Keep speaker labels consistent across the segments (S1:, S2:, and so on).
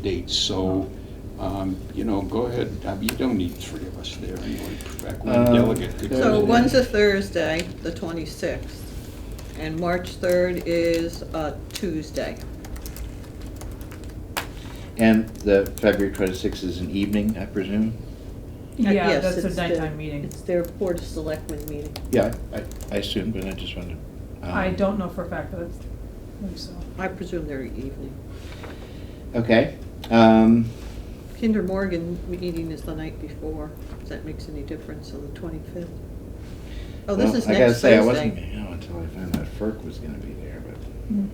S1: dates, so, um, you know, go ahead, I mean, you don't need three of us there anyway, in fact, one
S2: Um,
S1: delegate could go.
S2: Thursday.
S3: So one's a Thursday, the 26th, and March 3rd is a Tuesday.
S2: And the February twenty-sixth is an evening, I presume?
S3: Uh,
S4: Yeah,
S3: yes,
S4: that's a
S3: it's their-
S4: nighttime meeting.
S3: It's their Board of Selectmen meeting.
S2: Yeah, I, I assume, but I just wanted. um,
S4: I don't know for a fact, but I think so.
S3: I presume they're evening.
S2: Okay, um,
S3: Kinder Morgan meeting is the night before, if that makes any difference on the 25th. Oh, this
S2: well,
S3: is
S2: I gotta
S3: next
S2: say, I wasn't,
S3: Thursday.
S2: you know, until I found out FERC was gonna be there,
S4: Mm.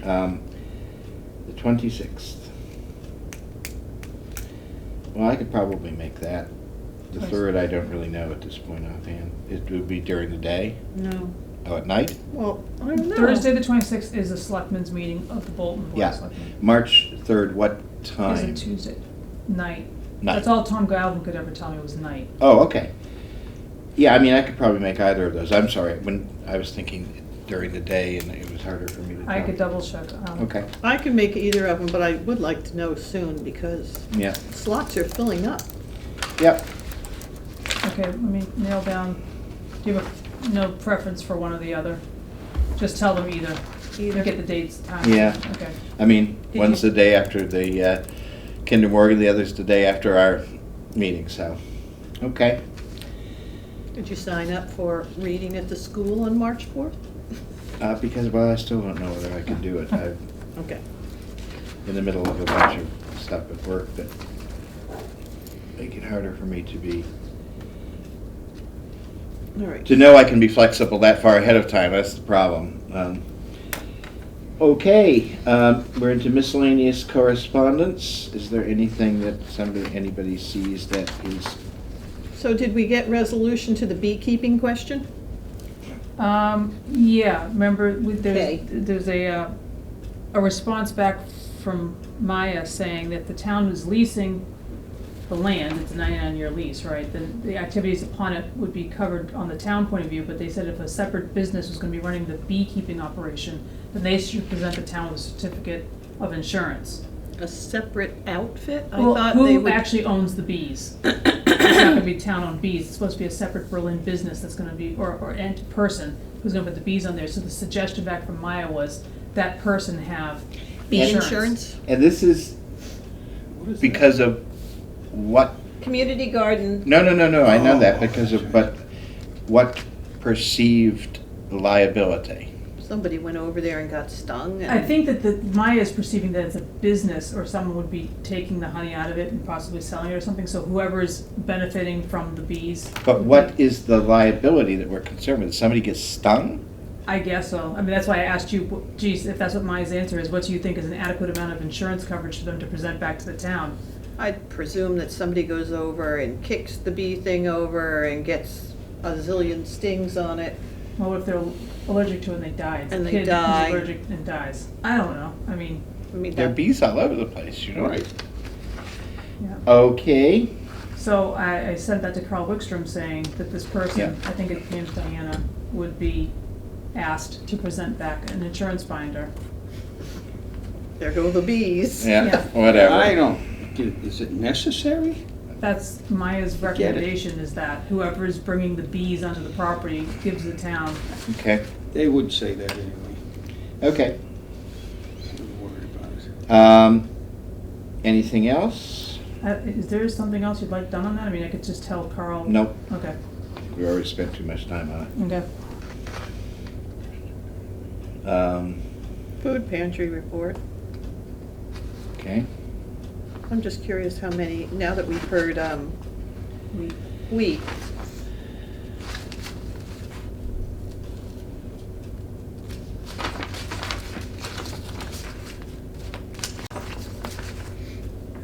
S2: but, um, the twenty-sixth. Well, I could probably make that. The
S4: Nice.
S2: third, I don't really know at this point offhand. It would be during the day,
S3: No,
S2: oh, at night?
S3: well, I don't know.
S4: Thursday, the twenty-sixth is a selectmen's meeting of the Bolton Board of
S2: Yeah,
S4: Selectmen.
S2: March third, what time?
S4: Is it Tuesday night?
S2: Night.
S4: That's all Tom Galvin could ever tell me was night.
S2: Oh, okay. Yeah, I mean, I could probably make either of those. I'm sorry, when I was thinking during the day and it was harder for me to.
S4: I
S2: tell.
S4: could double check. um,
S2: Okay,
S3: I can make either of them, but I would like to know soon because
S2: yeah,
S3: slots are filling up.
S2: yep.
S4: Okay, let me nail down, do you have a- no preference for one or the other? Just tell them either.
S3: Either.
S4: Get the dates, time.
S2: Yeah.
S4: Okay.
S2: I mean,
S3: Did
S2: one's
S3: you-
S2: the day after the uh, Kinder Morgan, the other's the day after our meeting, so, okay.
S3: Did you sign up for reading at the school on March 4th?
S2: Uh, Because, well, I still don't know whether I can do it. I'm
S3: Okay.
S2: in the middle of a bunch of stuff at work that make it harder for me to be
S3: All right.
S2: to know I can be flexible that far ahead of time, that's the problem. Um, Okay, um, we're into miscellaneous correspondence. Is there anything that somebody, anybody sees that is,
S3: So did we get resolution to the beekeeping question?
S4: Um, yeah, remember, with, there's,
S3: Okay.
S4: there's a, uh, a response back from Maya saying that the town is leasing the land, it's a ninety-nine-year lease, right? Then the activities upon it would be covered on the town point of view, but they said if a separate business was gonna be running the beekeeping operation, then they should present the town with a certificate of insurance.
S3: A separate outfit? I
S4: Well,
S3: thought they
S4: Who
S3: would.
S4: actually owns the bees? It's not gonna be town owned bees, it's supposed to be a separate Berlin business that's gonna be, or, or ent person who's gonna put the bees on there, so the suggestion back from Maya was that person have
S3: Bee
S4: insurance.
S3: insurance?
S2: and this is
S1: What is that?
S2: because of what,
S3: Community garden,
S2: no, no, no, no, I know that
S1: Oh,
S2: because of,
S1: okay.
S2: but what perceived liability?
S3: somebody went over there and got stung and.
S4: I think that the, Maya is perceiving that it's a business, or someone would be taking the honey out of it and possibly selling it or something, so whoever is benefiting from the bees.
S2: But what is the liability that we're concerned with? Somebody gets stung?
S4: I guess so, I mean, that's why I asked you, wh- geez, if that's what Maya's answer is, what do you think is an adequate amount of insurance coverage for them to present back to the town?
S3: I presume that somebody goes over and kicks the bee thing over and gets a zillion stings on it.
S4: Well, what if they're allergic to it and they die? It's a
S3: And they
S4: kid who's
S3: die.
S4: allergic and dies. I don't know. I mean,
S3: I mean,
S2: There are
S3: that,
S2: bees all over the place, you know?
S1: Right,
S4: yeah.
S2: Okay,
S4: So I, I sent that to Carl Wickstrom saying that this person,
S2: Yeah.
S4: I think it name's Diana, would be asked to present back an insurance binder.
S3: there go the bees.
S2: yeah,
S4: Yeah.
S2: whatever.
S1: I don't, is it necessary?
S4: That's Maya's
S1: it.
S4: recommendation is that whoever is bringing the bees onto the property gives the town.
S2: Okay,
S1: They would say that anyway,
S2: okay.
S1: I'm worried about it.
S2: Um, anything else?
S4: Uh, Is there something else you'd like done on that? I mean, I could just tell Carl.
S2: Nope,
S4: Okay,
S2: we already spent too much time on
S4: okay.
S2: it. Um,
S3: Food pantry report.
S2: okay,
S3: I'm just curious how many, now that we've heard, um,
S4: We,
S3: wheat,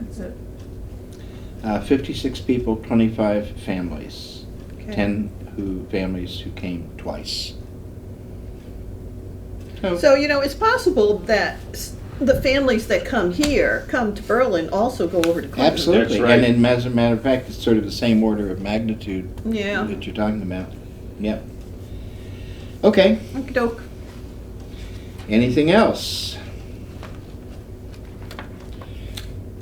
S4: that's it.
S2: uh, fifty-six people, twenty-five families,
S3: okay.
S2: ten who, families who came twice.
S3: So, you know, it's possible that s- the families that come here, come to Berlin, also go over to Clinton.
S2: Absolutely,
S1: That's right.
S2: and in, as a matter of fact, it's sort of the same order of magnitude
S3: Yeah,
S2: that you're talking about, yep. Okay,
S3: okey doke.
S2: anything else?